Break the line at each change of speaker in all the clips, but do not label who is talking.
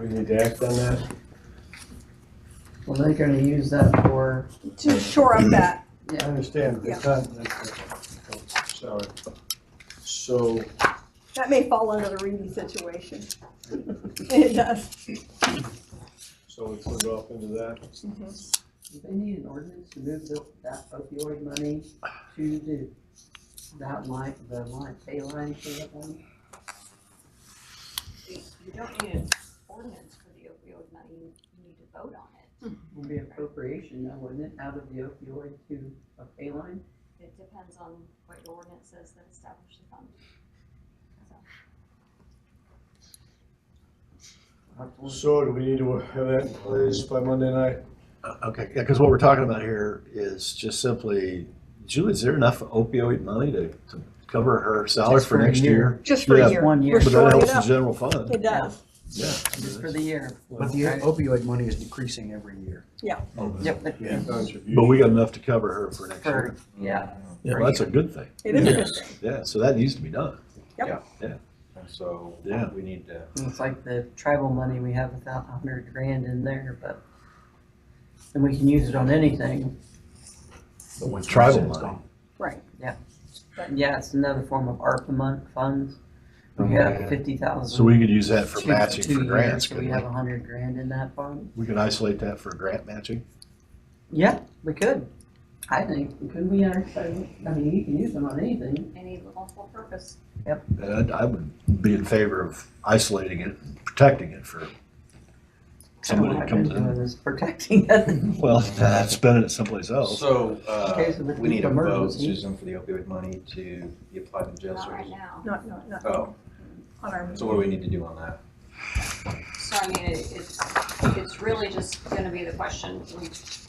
We need to act on that?
Well, they're gonna use that for,
to shore up that.
I understand, but it's not, that's- sorry. So,
That may fall under the Reedy situation. It does.
so we put it off into that?
do they need an ordinance to move the, that opioid money to the, that line, the line, pay line for that one?
You you don't need an ordinance for the opioid money, you you need to vote on it.
Would be appropriation, now, wouldn't it, out of the opioid to a pay line?
It depends on what your ordinance says that establishes the fund.
I'll have to look.
So do we need to have that in place by Monday night?
Uh, Okay, yeah, because what we're talking about here is just simply, Julie, is there enough opioid money to, to cover her salary
Just
for
for a
next
year.
year?
Just for a
Yeah.
year.
One year.
We're
But
But that
shoring it
helps the
up.
general fund.
It does.
Yeah.
Just for the year. But the
Okay.
opioid money is decreasing every year.
Yep, but-
Oh, But we got enough to cover her for next
For,
year.
yeah.
Well, that's a good thing.
It is a good thing.
Yeah, so that needs to be done.
So
Yeah.
we need to,
It's like the tribal money, we have about a hundred grand in there, but, and we can use it on anything.
Tribal money.
Right.
Yeah, it's another form of ARPA mon- funds. We
Oh,
have
yeah.
fifty thousand.
So we could use that for matching for grants,
So we
couldn't
have
we?
a hundred grand in that fund.
We could isolate that for grant matching.
Yeah, we could. I think, could we, actually- I mean, you can use them on anything.
Any lawful purpose.
And I would be in favor of isolating it, and protecting it for
Kind of
somebody
what
that
I've been
comes in.
doing is protecting it.
Well, spending it someplace else.
Oh. so, uh,
case of
we need a vote,
emergency.
Susan, for the opioid money to be applied to the jail
Not right
service.
now.
Not, not, not
Oh,
on our,
so what do we need to do on that?
So I mean, it- it's, it's really just gonna be the question, we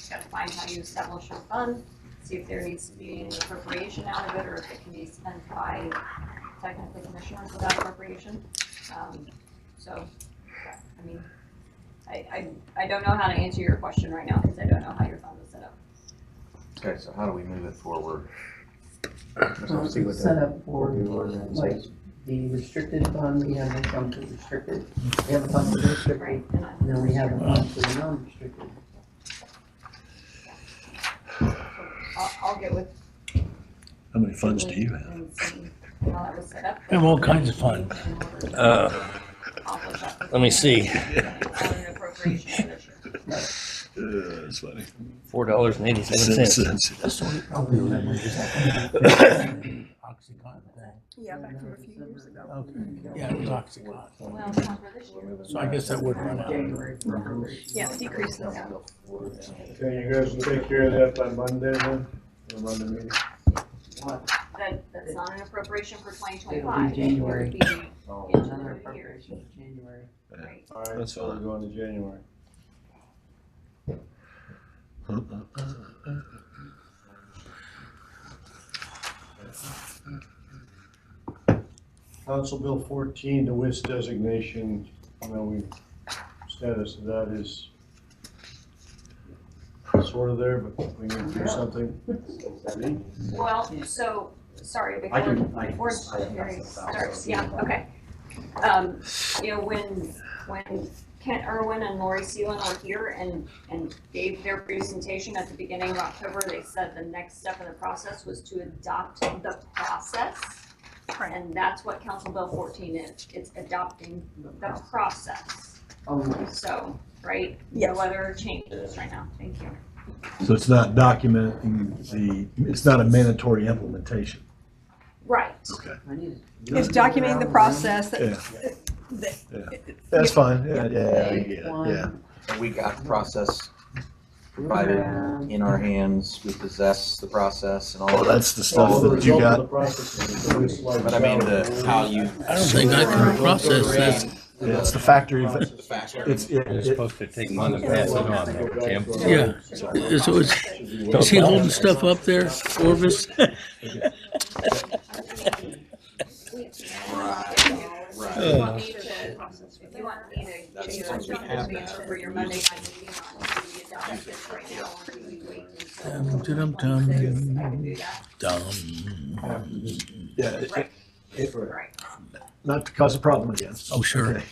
gotta find how you establish your fund, see if there needs to be any appropriation out of it, or if it can be spent by technically commissioners without appropriation. Um, So, I mean, I, I, I don't know how to answer your question right now, because I don't know how your fund is set up.
Okay, so how do we move it forward?
Well,
See what
it's Set
the-
up for,
what the ordinance
like,
is.
the restricted fund, we have a fund for restricted, we have a fund for restricted,
Right. And I-
and then we have a fund for non-restricted.
I'll, I'll get with.
How many funds do you have?
and see How that was set up.
I have all kinds of funds.
In order to
Uh,
accomplish that.
let me see,
On an appropriation measure.
Uh, It's funny.
four dollars and eighty-seven cents.
yeah, back from a few years ago.
Yeah, it was OxyContin.
Well, it's not for this year.
So I guess that would run out.
January for-
Yeah, decrease the amount.
Okay, you guys will take care of that by Monday then? Or Monday meeting?
That, that's not an appropriation for twenty
It'll
twenty-five.
be January.
Oh,
Another appropriation in January.
All right,
That's
so we're
fine.
going to January. Council Bill fourteen, the WIS designation, you know, we, status of that is sort of there, but we need to do something.
Well, so, sorry, before,
I can- I can-
before
I
the
can
hearing
pass that down.
starts, yeah, okay. Um, you know, when, when Kent Irwin and Lori Seelan were here and, and gave their presentation at the beginning of October, they said the next step in the process was to adopt the process. And that's what Council Bill fourteen is, it's adopting the process.
Only.
So, right?
Yes.
No other changes right now, thank you.
So it's not documenting the, it's not a mandatory implementation.
Right,
Okay.
I need to-
It's documenting the process that,
Yeah,
that.
that's fine. Yeah, yeah,
Page
yeah,
one.
yeah.
So We got the process provided
Um,
in our hands, we possess the process and all
Oh,
of that.
that's the stuff that you got.
But
But
I mean, the, how you.
I don't think I can process that.
Yeah, It's the factory,
The
it's,
factor.
it- it-
supposed to take months to pass it on, though, Tim.
Yeah, so is, is he holding stuff up there, Orvis?
uh, Right.
if you want me to, if you want me to give you
That's
a
what we have
answer for your Monday night meeting on the adoption right now, or do you wait
Dum,
until?
dum, dum.
I can do that,
Dumb.
yeah, it-
right?
not to cause a problem again.
Oh, sure.